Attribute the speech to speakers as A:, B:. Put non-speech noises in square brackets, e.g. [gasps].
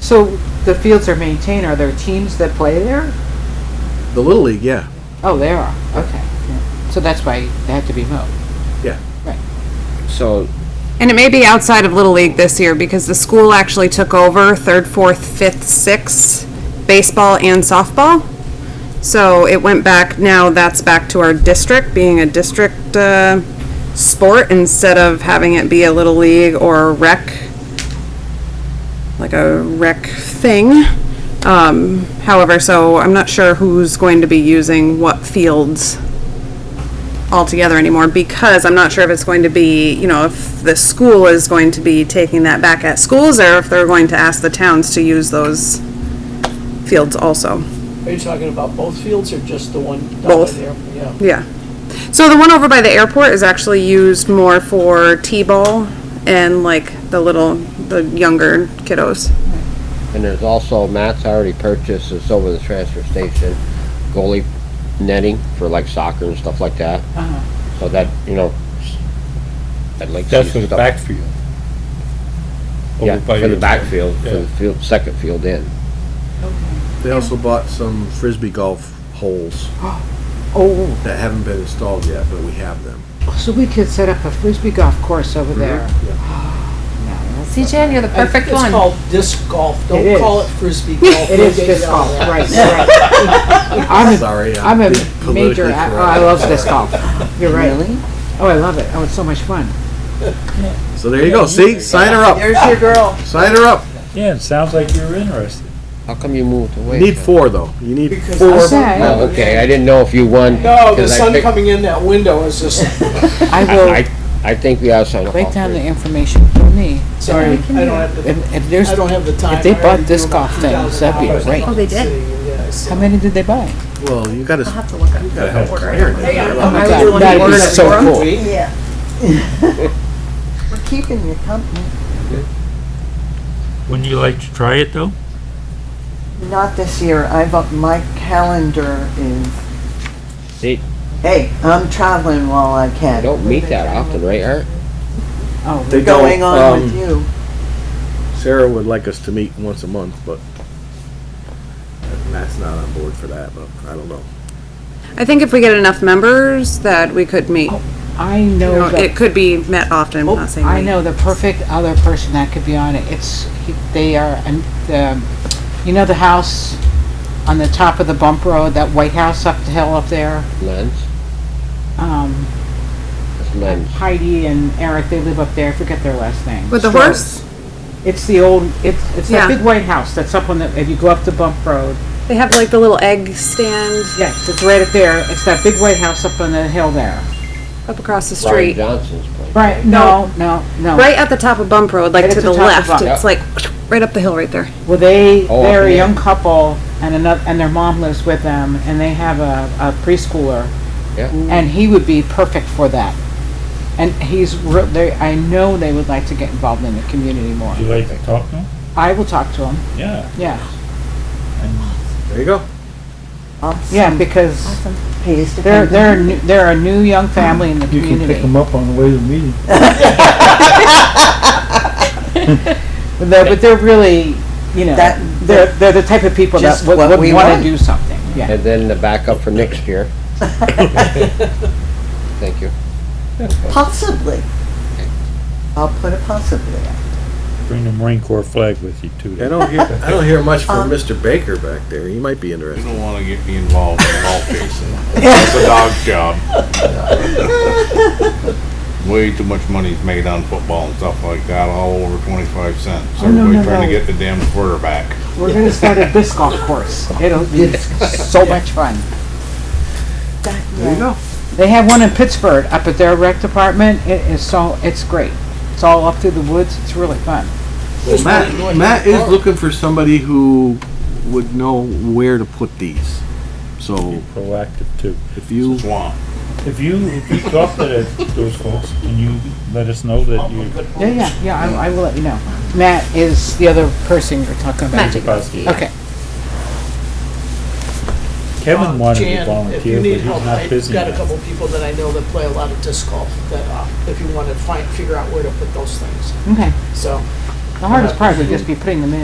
A: So the fields are maintained, are there teams that play there?
B: The Little League, yeah,
A: Oh, there are, okay. yeah. So that's why they have to be mowed.
B: yeah.
C: So,
D: And it may be outside of Little League this year because the school actually took over third, fourth, fifth, sixth, baseball and softball. So it went back, now that's back to our district, being a district, uh, sport instead of having it be a Little League or rec, like a rec thing. Um, however, so I'm not sure who's going to be using what fields altogether anymore because I'm not sure if it's going to be, you know, if the school is going to be taking that back at schools or if they're going to ask the towns to use those fields also.
E: Are you talking about both fields or just the one down
D: Both.
E: there? Yeah.
D: Yeah. So the one over by the airport is actually used more for T-ball and like the little, the younger kiddos.
C: and there's also, Matt's already purchased, it's over the transfer station, goalie netting for like soccer and stuff like that. So that, you know, I'd like to
F: That's
C: see
F: for the
C: stuff-
F: backfield.
C: Yeah,
F: Over
C: for
F: by
C: the
F: your-
C: backfield, for
F: Yeah.
C: the field, second field in.
B: They also bought some frisbee golf holes
A: Oh,
B: that haven't been installed yet, but we have them.
A: so we could set up a frisbee golf course over there. [gasps]
G: See, Jen, you're the perfect
E: It's
G: one.
E: called disc golf.
A: It
E: Don't call it
A: is.
E: frisbee golf.
A: It is
E: We'll get
A: disc
E: you
A: golf,
E: on that.
A: right, right. I'm a,
B: Sorry,
A: I'm
B: I'm
A: a major,
B: politically
A: a- oh, I
B: correct.
A: love disc golf. You're right. Oh, I love it. Oh, it's so much fun.
B: So there you go. See, sign her up.
A: There's your girl.
B: Sign her up.
F: Yeah, it sounds like you're interested.
C: How come you moved away?
B: You need four though. You need
E: Because
B: four.
E: the
A: Okay.
E: sun-
C: Oh, okay, I didn't know if you won.
E: No, the
C: 'cause I
E: sun
C: picked-
E: coming in that window is [laughs] just,
A: I will
C: [laughs] I, I think we ought to sign up all
A: break down the
C: three.
A: information for me.
E: sorry, I don't have the,
A: If, if there's,
E: I don't have the time.
A: if they
E: I already
A: bought disc
E: do about
A: golf things, that'd be
E: $2,000
A: great.
G: Oh, they did?
E: sitting, yeah, so-
A: how many did they buy?
B: Well, you gotta,
G: I'll have to look up.
B: you gotta help Karen.
A: Oh my
G: would
A: God,
G: want
A: that'd be
G: to
A: so
G: order
A: cool.
H: Yeah. We're keeping you company,
F: Wouldn't you like to try it, though?
H: not this year, I've, up- my calendar is,
C: See,
H: hey, I'm traveling while I
C: I
H: can.
C: don't meet that often, right, Art?
A: Oh,
B: They don't,
H: Going on
B: um,
H: with you.
B: Sarah would like us to meet once a month, but Matt's not on board for that, but I don't know.
D: I think if we get enough members that we could meet.
A: I
D: You know,
A: know the
D: It could be met often, I'm not saying.
A: I
D: meet.
A: know the perfect other person that could be on it. It's, he- they are, um, the, you know the house on the top of the bump road, that white house up the hill up there?
C: Lens,
A: Um,
C: it's lens.
A: Heidi and Eric, they live up there, I forget their last name.
D: With the
A: Stroh.
D: horse,
A: It's the old, it's, it's that
D: Yeah.
A: big white house that's up on the, if you go up the bump road.
D: they have like the little egg stand
A: Yes, it's right up there. It's that big white house up on the hill there.
D: up across the
C: Brian
D: street.
C: Johnson's place.
A: Right, no, no, no.
D: Right at the top of Bump Road, like
A: Right
D: to
A: at the
D: the
A: top of
D: left,
A: Bump.
D: it's like right up the hill right there.
A: Well, they,
C: Oh,
A: they're a
C: yeah.
A: young couple and another, and their mom lives with them and they have a, a preschooler.
C: Yeah.
A: And he would be perfect for that. And he's, re- they, I know they would like to get involved in the community more.
F: Would you like to talk to him?
A: I will talk to him,
F: Yeah.
A: yeah,
B: There you go.
H: Awesome.
A: yeah, because
H: Pays to
A: they're,
H: come
A: they're, a new- they're a new young family in the
F: You can
A: community.
F: pick them up on the way to the
H: [laughs]
F: meeting.
A: [laughs] But they're, but they're really, you know,
H: That-
A: they're, they're the type of people that
H: Just
A: would,
H: what
A: would
H: we
A: wanna
H: want.
A: do something, yeah.
C: And then the backup for next year. Thank you.
H: Possibly. I'll put a possibly.
F: Bring the Marine Corps flag with you, too.
B: I don't hear, I don't hear much from Mr. Baker back there. He might be
I: You
B: interested.
I: don't want to get me involved in ball facing. That's a dog job. Way too much money's made on football and stuff like that, all over twenty-five cents.
A: Oh, no, no,
I: Everybody trying
A: no.
I: to get the damn quarterback.
A: We're gonna start a disc golf course, it'll be so much fun.
B: There you go.
A: They have one in Pittsburgh up at their rec department. It is so, it's great. It's all up through the woods. It's really fun.
B: Well, Matt, Matt is looking for somebody who would know where to put these.
F: [laughs] Be
B: So
F: proactive, too.
B: if you,
I: Swamp.
F: If you, if you talk to that- those folks, and you let us know that you,
A: Yeah, yeah, yeah. I, I will let you know. Matt is the other person you're talking about.
G: Magic.
F: Bosky.
A: Okay.
F: Kevin wanted to
E: Uh, Jan, if
F: volunteer,
E: you
F: but
E: need
F: he's
E: help,
F: not
E: I've
F: busy.
E: got a
F: enough.
E: couple people that I know that play a lot of disc golf, that, uh, if you wanna find, figure out where to put those things,
A: Okay.
E: so.
A: The hardest part would just be putting them in.